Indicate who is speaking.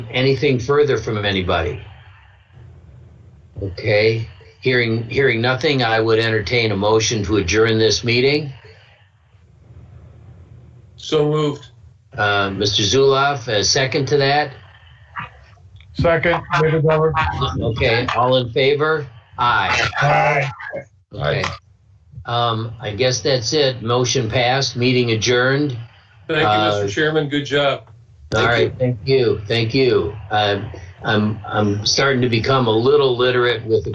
Speaker 1: Anything further from anybody? Okay, hearing, hearing nothing, I would entertain a motion to adjourn this meeting.
Speaker 2: So moved.
Speaker 1: Uh, Mr. Zuloff, a second to that?
Speaker 3: Second, David Glover.
Speaker 1: Okay, all in favor? Aye.
Speaker 3: Aye.
Speaker 1: Okay. Um, I guess that's it. Motion passed, meeting adjourned.
Speaker 2: Thank you,
Speaker 1: Uh,
Speaker 2: Mr. Chairman. Good job.
Speaker 1: All
Speaker 2: Thank
Speaker 1: right, thank you, thank you. Uh, I'm, I'm starting to become a little literate with the